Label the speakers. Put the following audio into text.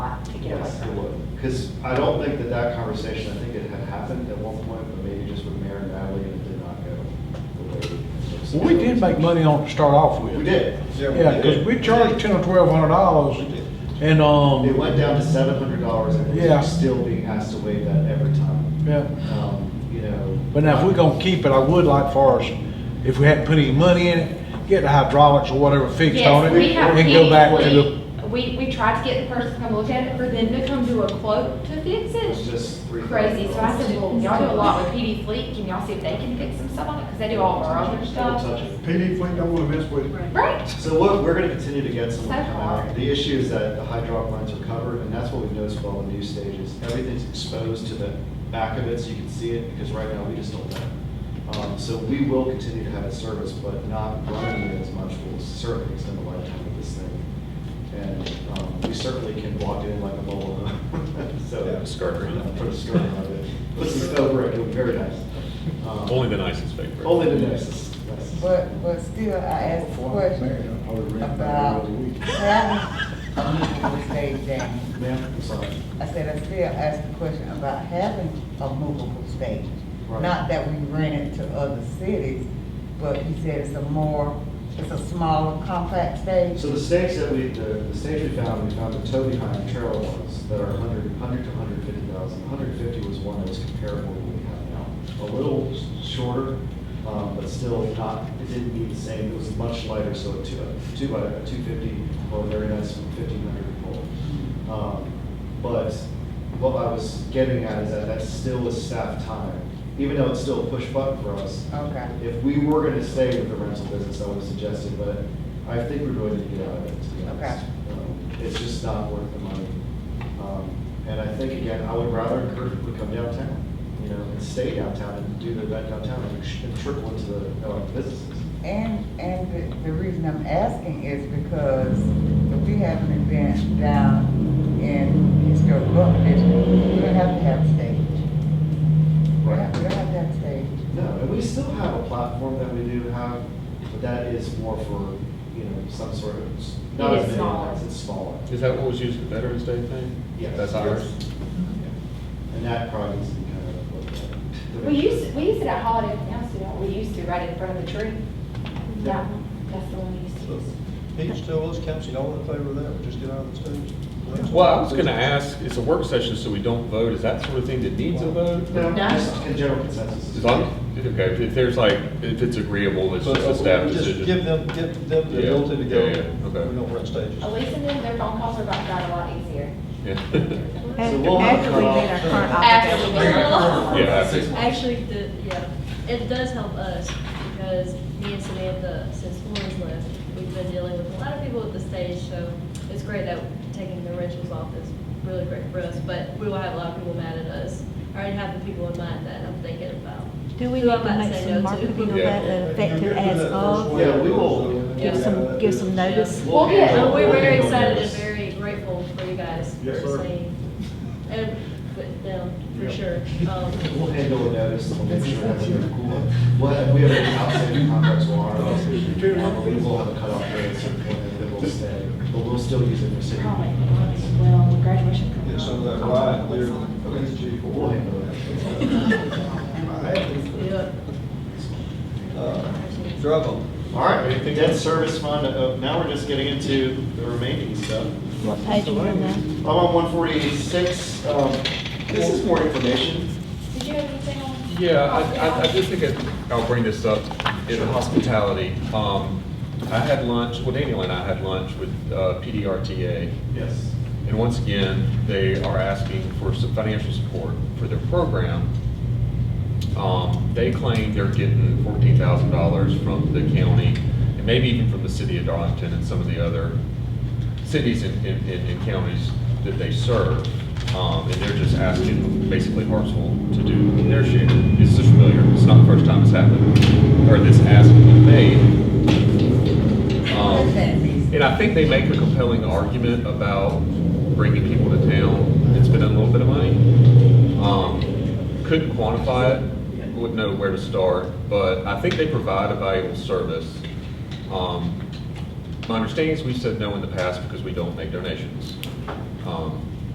Speaker 1: Because I don't think that that conversation, I think it had happened at one point, but maybe just with Mayor and Natalie, and it did not go the way. it was.
Speaker 2: Well, we did make money on it to start off with.
Speaker 1: We did.
Speaker 2: Yeah, because we charged ten or twelve hundred dollars,
Speaker 1: We did.
Speaker 2: and,
Speaker 1: It
Speaker 2: um,
Speaker 1: went down to seven hundred dollars, and
Speaker 2: Yeah.
Speaker 1: we're still being asked to waive that every time.
Speaker 2: yeah.
Speaker 1: Um, You know.
Speaker 2: But now, if we're gonna keep it, I would like for us, if we hadn't put any money in it, get the hydraulics or whatever fixed on
Speaker 3: Yes,
Speaker 2: it,
Speaker 3: we have
Speaker 2: and go back to the,
Speaker 3: paid- We, we tried to get the person to come look at it, for them to come do a quote to fix
Speaker 1: It was
Speaker 3: it.
Speaker 1: just three.
Speaker 3: Crazy, so I said, well, y'all do a lot with PD Fleet, can y'all see if they can fix some stuff on it, because they do all of our other
Speaker 1: Don't
Speaker 3: stuff.
Speaker 1: touch it.
Speaker 4: PD fleet don't wanna mess with it.
Speaker 3: Right?
Speaker 1: So what, we're gonna continue to get someone
Speaker 3: That's
Speaker 1: coming out.
Speaker 3: hard.
Speaker 1: The issue is that the hydraulic lines are covered, and that's what we've noticed with all the news stages. Everything's exposed to the back of it, so you can see it, because right now, we just don't know. Um, so we will continue to have it serviced, but not running it as much will certainly extend the lifetime of this thing. And, um, we certainly can walk in like a mobile home, so. uh,
Speaker 5: Yeah, a skirt around it.
Speaker 1: Put a skirt around it, put some over it, it'll be very nice. Um,
Speaker 5: Only the nicest paper.
Speaker 1: Only the nicest, nicest.
Speaker 6: But, but still, I asked the question about having a movable stage down.
Speaker 1: Ma'am, I'm sorry.
Speaker 6: I said, I still asked the question about having a movable stage.
Speaker 1: Right.
Speaker 6: Not that we rent it to other cities, but he said it's a more, it's a smaller, compact stage.
Speaker 1: So the stakes that we, the, the stakes we found, we found the toe behind trail ones that are 100, 100 to 150,000. 150 was one that was comparable to what we have now. A little shorter, um, but still not, it didn't meet the same, it was much lighter, so a two, a two by, a 250, or a very nice 1500 pole. Um, But what I was getting at is that that still is staff time, even though it's still a push button for us.
Speaker 6: Okay.
Speaker 1: If we were gonna stay with the rental business, I would have suggested, but I think we really need to get out of it, to be honest. Um, It's just not worth the money. Um, And I think, again, I would rather encourage people to come downtown, you know, and stay downtown and do the event downtown and sh- and trickle into the uh, businesses.
Speaker 6: And, and the, the reason I'm asking is because if we have an event down in historic Buck District, we don't have to have a stage. We don't have we don't have to have a stage.
Speaker 1: No, and we still have a platform that we do have, but that is more for, you know, some sort of, not
Speaker 3: It
Speaker 1: as
Speaker 3: is
Speaker 1: many
Speaker 3: smaller.
Speaker 1: events, it's smaller.
Speaker 5: Is that what was used at Veterans Day thing?
Speaker 1: Yes.
Speaker 5: That's ours?
Speaker 1: Yeah. And that probably needs to be kind of looked at.
Speaker 3: We use, we use it at Holiday Inn House, you know, we used to, right in front of the tree. That one, that's the one we used to use.
Speaker 4: He just tell us, council, y'all in favor of that, we just get out of the stage.
Speaker 5: Well, I was gonna ask, it's a work session, so we don't vote. Is that sort of thing that needs a vote?
Speaker 1: No,
Speaker 3: No.
Speaker 1: just in general consensus.
Speaker 5: As long, okay, if there's like, if it's agreeable, it's
Speaker 4: So,
Speaker 5: just a
Speaker 4: uh,
Speaker 5: staff
Speaker 4: we Just give
Speaker 5: decision.
Speaker 4: them, give them the
Speaker 5: Yeah,
Speaker 4: ability to
Speaker 5: yeah, yeah,
Speaker 4: go,
Speaker 5: okay.
Speaker 4: we don't rent stages.
Speaker 3: Elise and them, their phone calls are about to got a lot easier.
Speaker 5: Yeah.
Speaker 1: So we'll have
Speaker 7: After
Speaker 1: to
Speaker 7: we
Speaker 1: cut
Speaker 7: made
Speaker 1: off-
Speaker 7: our current
Speaker 3: After we
Speaker 7: obligation.
Speaker 5: Yeah, I think-
Speaker 8: Actually, the, yeah, it does help us because me and Samantha, since Lauren's left, we've been dealing with a lot of people at the stage, so it's great that taking the rentals off is really great for us, but we will have a lot of people mad at us. I already have the people in mind that I'm thinking about.
Speaker 7: Do we
Speaker 8: Who
Speaker 7: need
Speaker 8: I
Speaker 7: to
Speaker 8: might
Speaker 7: make
Speaker 8: say
Speaker 7: some
Speaker 8: no to.
Speaker 7: marketing on
Speaker 5: Yeah.
Speaker 7: that, that effective as of?
Speaker 1: Yeah, we will.
Speaker 7: Give some, give some notice?
Speaker 1: We'll
Speaker 3: Well, yeah,
Speaker 8: But
Speaker 1: handle-
Speaker 8: we're
Speaker 1: we'll
Speaker 8: very
Speaker 1: handle
Speaker 8: excited and
Speaker 1: this.
Speaker 8: very grateful for you guys for
Speaker 4: Yes, sir.
Speaker 8: saying, and with them, for sure. Um,
Speaker 1: We'll handle a notice, we'll make sure that we're cool. We'll have, we have an outstanding contracts will honor those. Um, We will have a cutoff date at some point, and then we'll stay, but we'll still use it for city.
Speaker 7: Oh,
Speaker 3: Well, graduation coming
Speaker 4: Get
Speaker 3: up.
Speaker 4: some of that
Speaker 3: I'll
Speaker 4: right
Speaker 3: talk
Speaker 4: there.
Speaker 3: to Elise on it.
Speaker 1: We'll handle that.
Speaker 8: yeah.
Speaker 4: Uh, Drug on.
Speaker 1: All right, debt service fund, uh, now we're just getting into the remaining stuff.
Speaker 7: What page are you on now?
Speaker 1: I'm on one forty-six, um, this is more information.
Speaker 3: Did you have anything on?
Speaker 5: Yeah, I- I, I just think it- I'll bring this up in hospitality. Um, I had lunch, well, Daniel and I had lunch with uh, PDRTA.
Speaker 1: Yes.
Speaker 5: And once again, they are asking for some financial support for their program. Um, They claim they're getting fourteen thousand dollars from the county, and maybe even from the city of Darlington and some of the other cities and, and- and and counties that they serve. Um, And they're just asking basically Hartsville to do their share. It's just familiar, it's not the first time it's happened, or this ask has been made. Um, and I think they make a compelling argument about bringing people to town and spending a little bit of money. Um, Couldn't quantify it, wouldn't know where to start, but I think they provide a valuable service. Um, My understanding is we said no in the past because we don't make donations. Um,